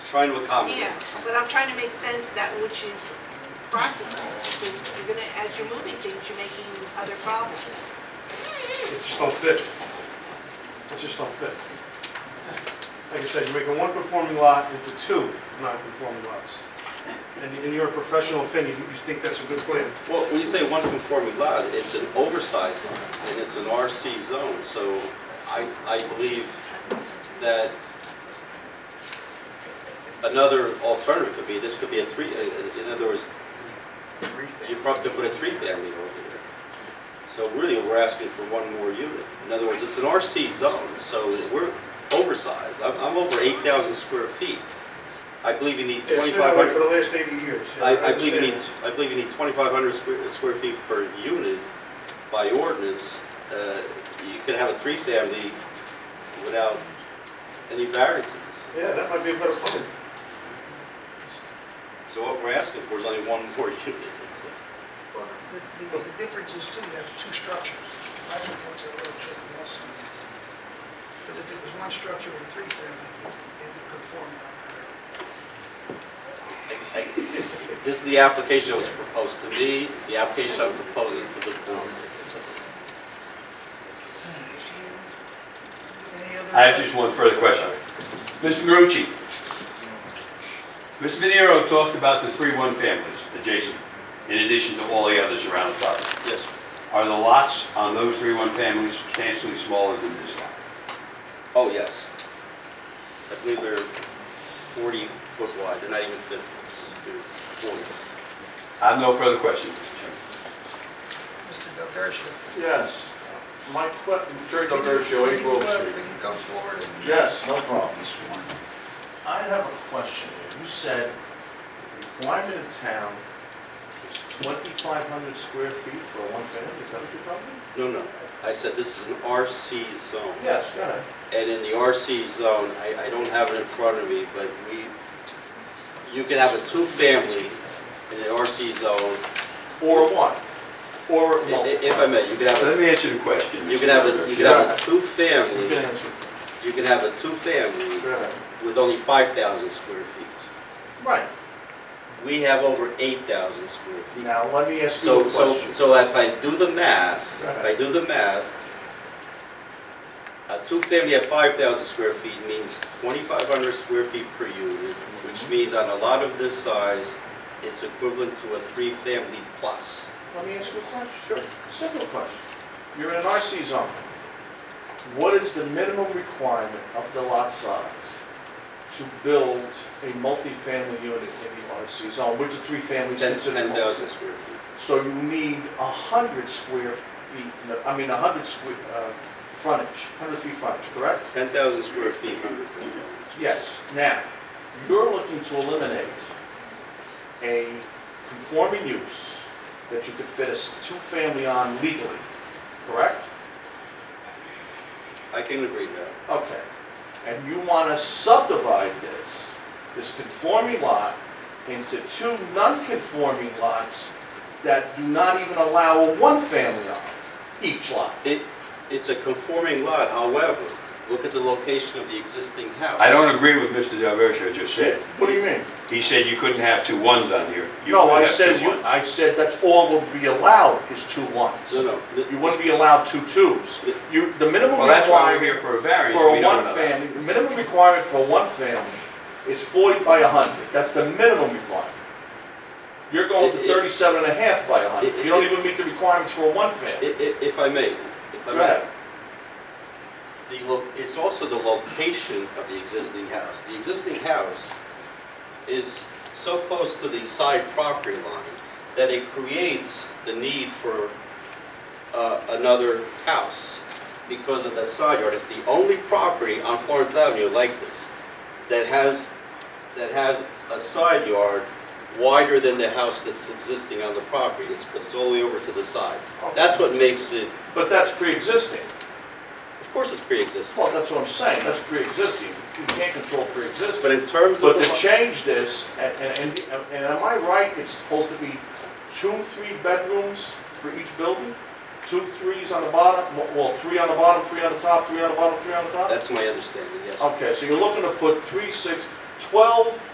trying to accommodate. Yeah, but I'm trying to make sense that which is practical, because you're gonna, as you're moving things, you're making other problems. It just don't fit. It just don't fit. Like I said, you're making one conforming lot into two non-conforming lots. And in your professional opinion, you think that's a good plan? Well, when you say one conforming lot, it's an oversized lot, and it's an RC zone, so I, I believe that another alternative could be, this could be a three, uh, in other words, you probably could put a three-family over there. So really, we're asking for one more unit. In other words, it's an RC zone, so we're oversized. I'm, I'm over 8,000 square feet. I believe you need It's been that way for 2,500. the last 80 years. I, I believe you need, understand. I believe you need 2,500 square, square feet per unit by ordinance. Uh, You can have a three-family without any variances. Yeah, that might be a better plan. So what we're asking for is only one more unit. That's it. Well, the, the, the difference is too, you have two structures. That's what makes it a little tricky also. Because if it was one structure with a three-family, it- it would conform a lot better. I- I- This is the application that was proposed to me, it's the application I'm proposing to the board. Any other? I have just one further question. Mr. Marucci, Mr. Venero talked about the three one families adjacent, in addition to all the others around the property. Yes, Are the lots on those three one families substantially smaller than this lot? oh, yes. I believe they're 40 foot wide, they're not even 50, they're 40. I have no further questions, Mr. Chairman. Mr. Delgertia. Yes. My question, Jerry Could you- Delgertia, could you April swear- Street. Could you come forward and Yes, no problem. be sworn? I have a question. here. You said the requirement in town is 2,500 square feet for a one-family, is that what you're talking No, no, about? I said this is an RC zone. Yes, go ahead. And in the RC zone, I, I don't have it in front of me, but we, you can have a two-family in an RC zone, Or one, or I- multiple. i- if I may, you can have, Let me answer the question. a- you can have, a you can have a You can two-family, answer. you can have a two-family Go ahead. with only 5,000 square feet. Right. We have over 8,000 square feet. Now, let me ask you So, a so, question. so if I do the math, if I Right. do the math, a two-family at 5,000 square feet means 2,500 square feet per unit, which Mm-hmm. means on a lot of this size, it's equivalent to a three-family plus. Let me ask you a question. Sure. Simple question. You're in an RC zone. What is the minimum requirement of the lot size to build a multifamily unit in the RC zone, which are three families 10 considered? 10,000 square feet. So you need a hundred square feet, no, I mean, a hundred square, uh, frontage, hundred feet frontage, correct? 10,000 square feet, 100 feet. Yes. Now, you're looking to eliminate a conforming use that you could fit a s- two-family on legally, correct? I can agree to that. Okay, and you want to subdivide this, this conforming lot, into two non-conforming lots that do not even allow a one-family on each lot. It, it's a conforming lot, however, look at the location of the existing house. I don't agree with Mr. Delversio just said. What do you mean? He said you couldn't have two ones on here. You No, could I have two said, you- ones. I said that's all would be allowed is two ones. No, no. You wouldn't be allowed two twos. You, the minimum Well, that's why requirement we're here for a variance. for We a don't one know that. family, the minimum requirement for one family is 40 by 100. That's the minimum requirement. You're going to It- it- 37 and a half by 100. it- You don't it- even meet the requirements for a one family. I- i- If I may, if I Go may. ahead. The, lo- it's also the location of the existing house. The existing house is so close to the side property line that it creates the need for uh, another house because of the side yard. It's the only property on Florence Avenue like this that has, that has a side yard wider than the house that's existing on the property. It's 'cause it's all the way over to the side. That's what makes it, But that's pre-existing. of course it's pre-existing, Well, that's what I'm saying, that's pre-existing. You can't control pre-existing. but in terms of. But the to change this, and, and, and am I right, it's supposed to be two, three bedrooms for each building? Two threes on the bottom, well, three on the bottom, three on the top, three on the bottom, three on the top? That's my understanding, yes. Okay, so you're looking to put three, six, 12